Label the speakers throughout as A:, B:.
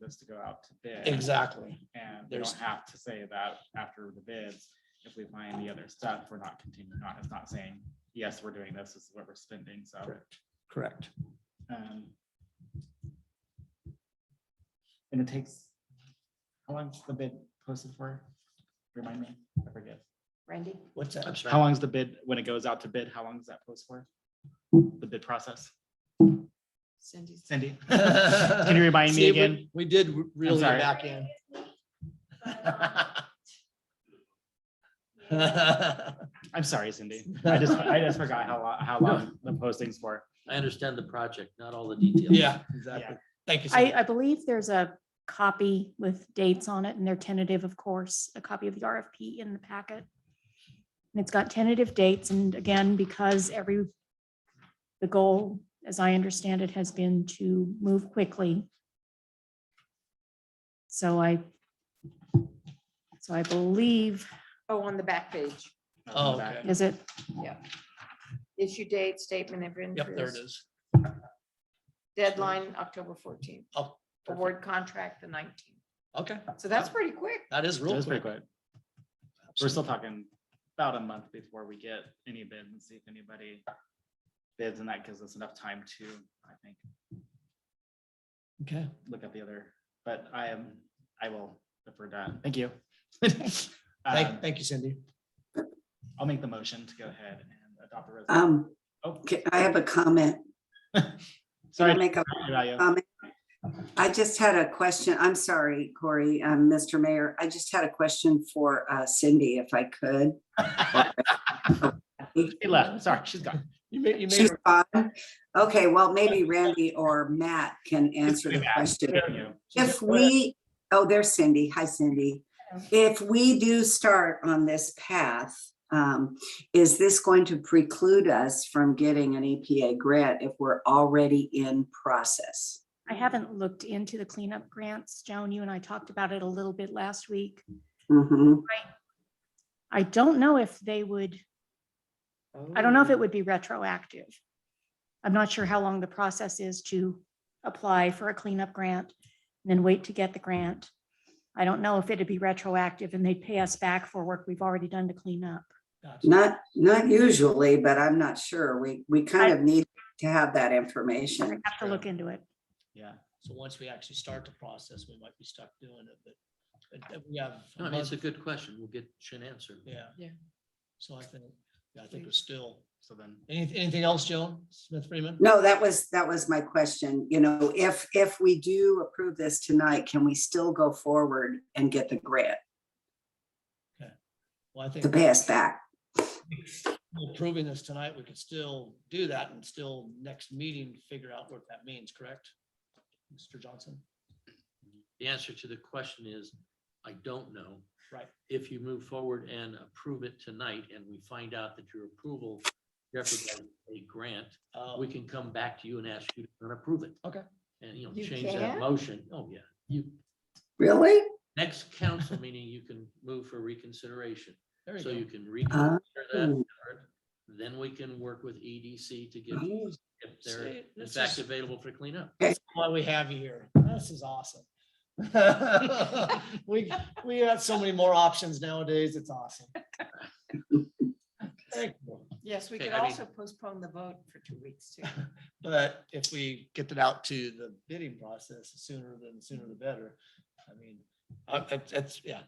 A: this to go out to bid.
B: Exactly.
A: And we
B: There's-
A: don't have to say that after the bids, if we find the other stuff, we're not continuing on. It's not saying, yes, we're doing this, this is what we're spending, so.
B: Correct. Correct.
A: um, And it takes, how long's the bid posted for? Remind me, I forget.
C: Randy?
B: What's that?
A: How long is the bid, when it goes out to bid, how long does that post for? The bid process?
C: Cindy's.
A: Cindy? Can
B: Can
A: you remind me again?
B: We did re- really
A: sorry.
B: back in.
A: I'm sorry, Cindy. I just, I just forgot how, lo- how long the posting's for.
D: I understand the project, not all the details.
B: Yeah, exactly. Thank you.
E: I,
B: Cindy.
E: I believe there's a copy with dates on it and they're tentative, of course, a copy of the RFP in the packet. And it's got tentative dates and again, because every, the goal, as I understand it, has been to move quickly. So I, so I believe,
C: Oh, on the back page,
B: Oh, okay.
E: is it,
C: issue date, statement of interest.
B: Yep, there it is.
C: Deadline, October fourteenth,
B: Oh, perfect.
C: award contract, the nineteenth.
B: Okay,
C: So that's pretty quick.
B: that is real
A: Just pretty
B: quick.
A: quick. We're still talking about a month before we get any bids and see if anybody bids and that gives us enough time to, I think,
B: Okay,
A: look at the other, but I am, I will defer that. Thank you. Um,
B: thank, thank you Cindy.
A: I'll make the motion to go ahead and adopt the resolution.
F: Um,
A: Oh,
F: ca- I have a comment. Can I
A: sorry.
F: make a comment? I just had a question. I'm sorry, Corey, um, Mr. Mayor. I just had a question for uh, Cindy, if I could.
A: She
F: um,
A: left. Sorry, she's gone.
B: You made, you made,
F: She's gone. Okay, well, maybe Randy or Matt can answer the question.
A: Thank you.
F: If we, oh, there's Cindy. Hi, Cindy. If we do start on this path, um, is this going to preclude us from getting an EPA grant if we're already in process?
E: I haven't looked into the cleanup grants. Joan, you and I talked about it a little bit last week.
F: Mm-hmm.
E: I don't know if they would I don't know if it would be retroactive. I'm not sure how long the process is to apply for a cleanup grant and then wait to get the grant. I don't know if it'd be retroactive and they'd pay us back for work we've already done to clean up.
B: gotcha.
F: Not, not usually, but I'm not sure. We, we kind of need to have that information.
E: Have to look into it.
A: Yeah.
B: So once we actually start the process, we might be stuck doing it, but- but but we have. a
D: No, I mean, it's a
B: month-
D: good question. We'll get an answer.
B: Yeah.
C: Yeah.
B: So I think, yeah, I think we're still,
A: So then,
B: anything, anything else, Joan Smith Freeman?
F: No, that was, that was my question. You know, if, if we do approve this tonight, can we still go forward and get the grant,
B: Well, I
F: to
B: think
F: pay us back?
B: approving this tonight, we could still do that and still next meeting, figure out what that means, correct? Mr. Johnson?
D: The answer to the question is, I don't know.
B: Right.
D: If you move forward and approve it tonight and we find out that your approval represents a grant,
B: Uh,
D: we can come back to you and ask you to approve it.
B: Okay.
D: And, you know,
C: You
D: change that
C: can?
D: motion. Oh, yeah. You,
F: Really?
D: next council meeting, you can move for reconsideration.
B: there you
D: So
B: go.
D: you can reconsider that.
F: Oh.
D: card, Then we can work with EDC to get,
F: Oh,
D: if they're
B: See,
D: in
B: this
D: fact
B: is-
D: available for cleanup.
B: Why we have you here. This is awesome. We, we have so many more options nowadays. It's awesome. Thank you.
C: Yes, we
D: Okay,
C: could
D: I mean-
C: also postpone the vote for two weeks too.
B: But if we get it out to the bidding process sooner than sooner the better, I mean, uh, it's, it's, yeah,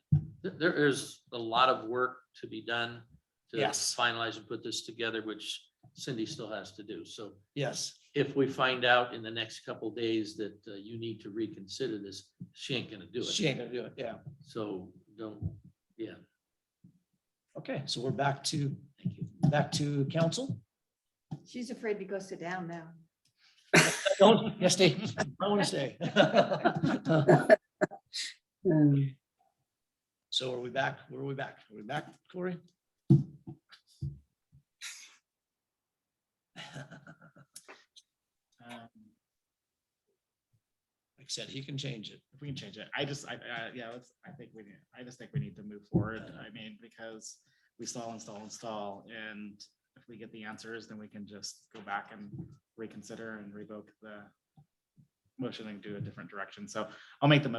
D: Th- There is a lot of work to be done to
B: Yes.
D: finalize and put this together, which Cindy still has to do. So
B: yes,
D: if we find out in the next couple days that uh, you need to reconsider this, she ain't gonna do
B: she
D: it.
B: ain't gonna do it, yeah.
D: So don't, yeah.
B: Okay, so we're back to, thank you, back to council.
C: She's afraid to go sit down now.
B: Don't, yes, stay, I want to stay.
F: um,
B: So are we back? Where are we back? Are we back, Corey?
A: um,
B: Like I said, he can change it.
A: if we can change it, I just, I, I, yeah, let's, I think we need, I just think we need to move forward. I mean, because we stall, install, install, and if we get the answers, then we can just go back and reconsider and revoke the motioning to a different direction. So I'll make the motion